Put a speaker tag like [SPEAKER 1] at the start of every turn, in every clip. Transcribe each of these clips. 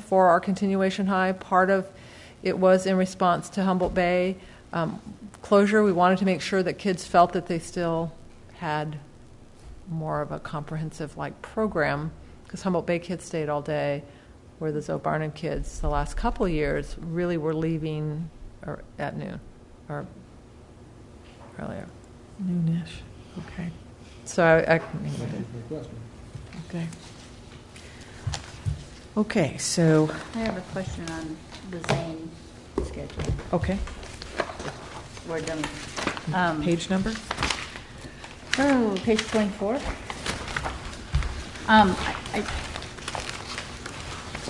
[SPEAKER 1] for our continuation high. Part of it was in response to Humboldt Bay um, closure. We wanted to make sure that kids felt that they still had more of a comprehensive like program because Humboldt Bay kids stayed all day, where the Zoe Barnum kids the last couple years really were leaving or at noon or earlier.
[SPEAKER 2] Noonish, okay,
[SPEAKER 1] So I, I
[SPEAKER 2] okay. Okay, so,
[SPEAKER 3] I have a question on the Zane schedule.
[SPEAKER 2] okay,
[SPEAKER 3] We're done. Um,
[SPEAKER 2] page number?
[SPEAKER 3] Oh, page 24. Um, I I-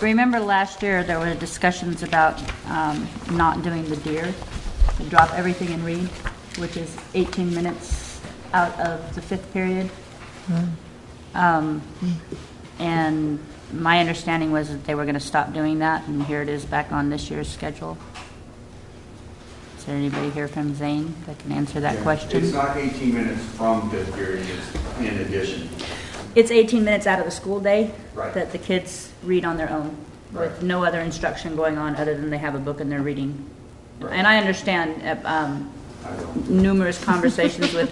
[SPEAKER 3] remember last year, there were discussions about um, not doing the deer, to drop everything and read, which is 18 minutes out of the fifth period. Um, And my understanding was that they were going to stop doing that, and here it is back on this year's schedule. Is there anybody here from Zane that can answer that
[SPEAKER 4] Yeah.
[SPEAKER 3] question?
[SPEAKER 4] It's not 18 minutes from fifth period, it's in addition.
[SPEAKER 3] It's 18 minutes out of the school day
[SPEAKER 4] Right.
[SPEAKER 3] that the kids read on their own, with
[SPEAKER 4] Right.
[SPEAKER 3] no other instruction going on other than they have a book and they're reading.
[SPEAKER 4] Right.
[SPEAKER 3] And I understand uh, um,
[SPEAKER 4] I don't,
[SPEAKER 3] numerous conversations with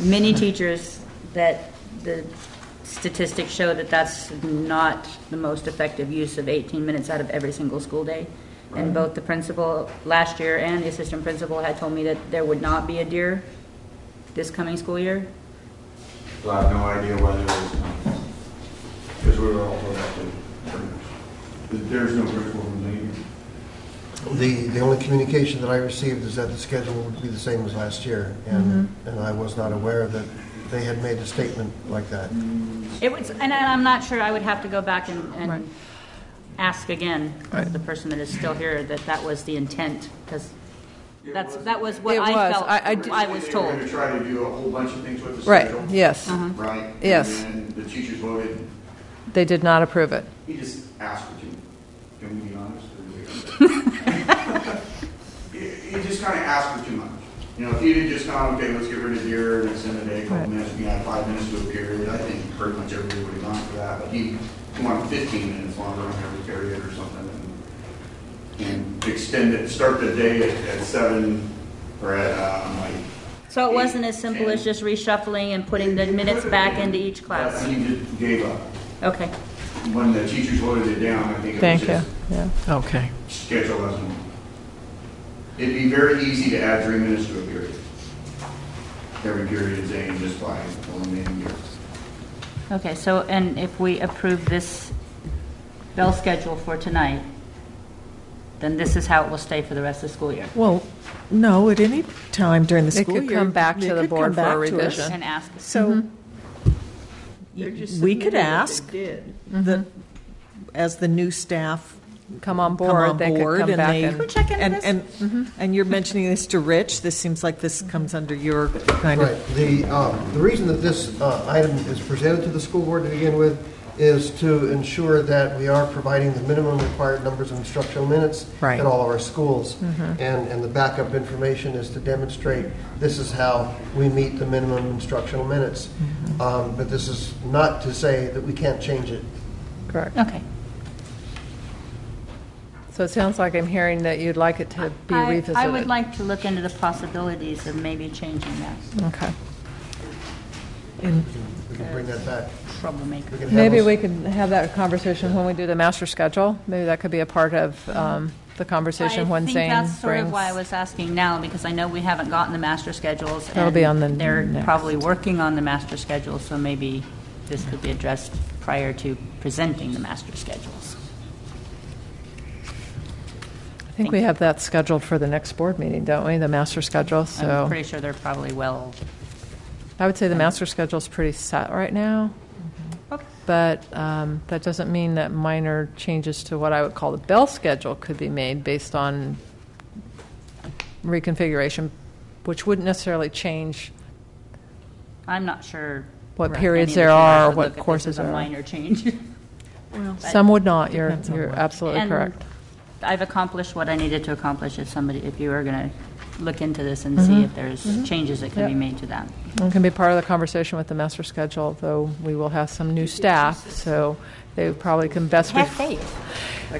[SPEAKER 3] many teachers that the statistics show that that's not the most effective use of 18 minutes out of every single school day. And both the principal last year and the assistant principal had told me that there would not be a deer this coming school year.
[SPEAKER 4] so I have no idea whether it's, because we were all told that the, there's no principal from Lee.
[SPEAKER 5] The, the only communication that I received is that the schedule would be the same as last year, and, and I was not aware that they had made a statement like that.
[SPEAKER 3] It was, and I- I'm not sure, I would have to go back and,
[SPEAKER 1] Right.
[SPEAKER 3] and ask again, of the person that is still here, that that was the intent, because that's, that was what
[SPEAKER 1] It
[SPEAKER 3] I
[SPEAKER 1] was.
[SPEAKER 3] felt,
[SPEAKER 1] I- I d-
[SPEAKER 3] I was
[SPEAKER 4] They were going
[SPEAKER 3] told. Uh-huh.
[SPEAKER 4] to try to do a whole bunch of things with the
[SPEAKER 1] right
[SPEAKER 4] schedule.
[SPEAKER 1] yes
[SPEAKER 2] Uh-huh.
[SPEAKER 4] Right?
[SPEAKER 1] Yes.
[SPEAKER 4] And then the teachers voted,
[SPEAKER 1] they did not approve it.
[SPEAKER 4] he just asked for two. Can we be honest? or we- He he just kind of asked for too much. You know, if he'd have just gone, okay, let's get rid of deer, and it's in the day, couple
[SPEAKER 1] Right.
[SPEAKER 4] minutes, we had five minutes to a period, I think pretty much everybody would have gone for that, but he he wanted fifteen minutes longer on every period or something, and- and extend it, start the day at- at seven, or at, um, like.
[SPEAKER 3] So it wasn't
[SPEAKER 4] eight,
[SPEAKER 3] as simple as
[SPEAKER 4] 10.
[SPEAKER 3] just reshuffling and putting the
[SPEAKER 4] It
[SPEAKER 3] minutes
[SPEAKER 4] could've
[SPEAKER 3] back
[SPEAKER 4] been,
[SPEAKER 3] into each
[SPEAKER 4] but
[SPEAKER 3] class.
[SPEAKER 4] He just gave up.
[SPEAKER 3] Okay,
[SPEAKER 4] When the teachers voted it down, I think it was
[SPEAKER 1] Thank you.
[SPEAKER 4] just
[SPEAKER 1] Yeah.
[SPEAKER 2] Okay,
[SPEAKER 4] schedule as normal. It'd be very easy to add three minutes to a period. Every period is aimed just by eliminating years.
[SPEAKER 3] okay, so, and if we approve this bell schedule for tonight, then this is how it will stay for the rest of the school year,
[SPEAKER 2] well, no, at any time during the
[SPEAKER 1] It
[SPEAKER 2] school year.
[SPEAKER 1] could come back to
[SPEAKER 2] they
[SPEAKER 1] the
[SPEAKER 2] could
[SPEAKER 1] board
[SPEAKER 2] come
[SPEAKER 1] for a
[SPEAKER 2] back to us.
[SPEAKER 1] revision.
[SPEAKER 3] and ask.
[SPEAKER 2] So,
[SPEAKER 6] They're just
[SPEAKER 2] we
[SPEAKER 6] submitting
[SPEAKER 2] could
[SPEAKER 6] what they
[SPEAKER 2] ask
[SPEAKER 6] did.
[SPEAKER 2] the, as the new staff
[SPEAKER 1] Come on Mm-hmm. board.
[SPEAKER 2] come on
[SPEAKER 1] they
[SPEAKER 2] board
[SPEAKER 1] could come
[SPEAKER 2] and
[SPEAKER 1] back
[SPEAKER 2] they-
[SPEAKER 1] and Mm-hmm.
[SPEAKER 3] check into
[SPEAKER 2] and-
[SPEAKER 3] this?
[SPEAKER 2] And, and you're mentioning this to Rich, this seems like this comes under your kind
[SPEAKER 5] Right,
[SPEAKER 2] of,
[SPEAKER 5] the, um, the reason that this uh, item is presented to the school board to begin with is to ensure that we are providing the minimum required numbers of instructional minutes
[SPEAKER 2] Right.
[SPEAKER 5] at all of our schools. And, and the backup information is to demonstrate this is how we meet the minimum instructional minutes. Um, But this is not to say that we can't change it.
[SPEAKER 1] correct.
[SPEAKER 3] Okay.
[SPEAKER 1] So it sounds like I'm hearing that you'd like it to be
[SPEAKER 3] I-
[SPEAKER 1] revisited.
[SPEAKER 3] I would like to look into the possibilities of maybe changing that
[SPEAKER 1] Okay.
[SPEAKER 2] and
[SPEAKER 5] We can bring that back.
[SPEAKER 3] troublemaker.
[SPEAKER 5] We can have
[SPEAKER 1] Maybe
[SPEAKER 5] us-
[SPEAKER 1] we could have that conversation when we do the master schedule. Maybe that could be a part of um, the conversation when Zane
[SPEAKER 3] I think that's sort of
[SPEAKER 1] brings-
[SPEAKER 3] why I was asking now, because I know we haven't gotten the master schedules.
[SPEAKER 1] That'll be
[SPEAKER 3] and
[SPEAKER 1] on the
[SPEAKER 3] They're
[SPEAKER 1] next.
[SPEAKER 3] probably working on the master schedule, so maybe this could be addressed prior to presenting the master schedules.
[SPEAKER 1] I think we have that scheduled for the next board meeting, don't we? The master schedule. So
[SPEAKER 3] I'm pretty sure they're probably well,
[SPEAKER 1] I would say the master schedule is pretty set right now.
[SPEAKER 2] Mm-hmm.
[SPEAKER 1] But um, that doesn't mean that minor changes to what I would call the bell schedule could be made based on reconfiguration, which wouldn't necessarily change
[SPEAKER 3] I'm not sure.
[SPEAKER 1] What
[SPEAKER 3] Right.
[SPEAKER 1] periods
[SPEAKER 3] Any
[SPEAKER 1] there
[SPEAKER 3] of the parents
[SPEAKER 1] are,
[SPEAKER 3] would
[SPEAKER 1] what
[SPEAKER 3] look at this
[SPEAKER 1] courses
[SPEAKER 3] as a
[SPEAKER 1] are.
[SPEAKER 3] minor change.
[SPEAKER 1] Some would not. You're,
[SPEAKER 2] Depends on
[SPEAKER 1] you're
[SPEAKER 2] what.
[SPEAKER 1] absolutely
[SPEAKER 3] And
[SPEAKER 1] correct.
[SPEAKER 3] I've accomplished what I needed to accomplish if somebody, if you are going to look into this and
[SPEAKER 1] Mm-hmm.
[SPEAKER 3] see if there's changes that can be
[SPEAKER 1] Yep.
[SPEAKER 3] made to that.
[SPEAKER 1] And can be part of the conversation with the master schedule, though we will have some new staff, so they probably can best. ref-
[SPEAKER 3] faith.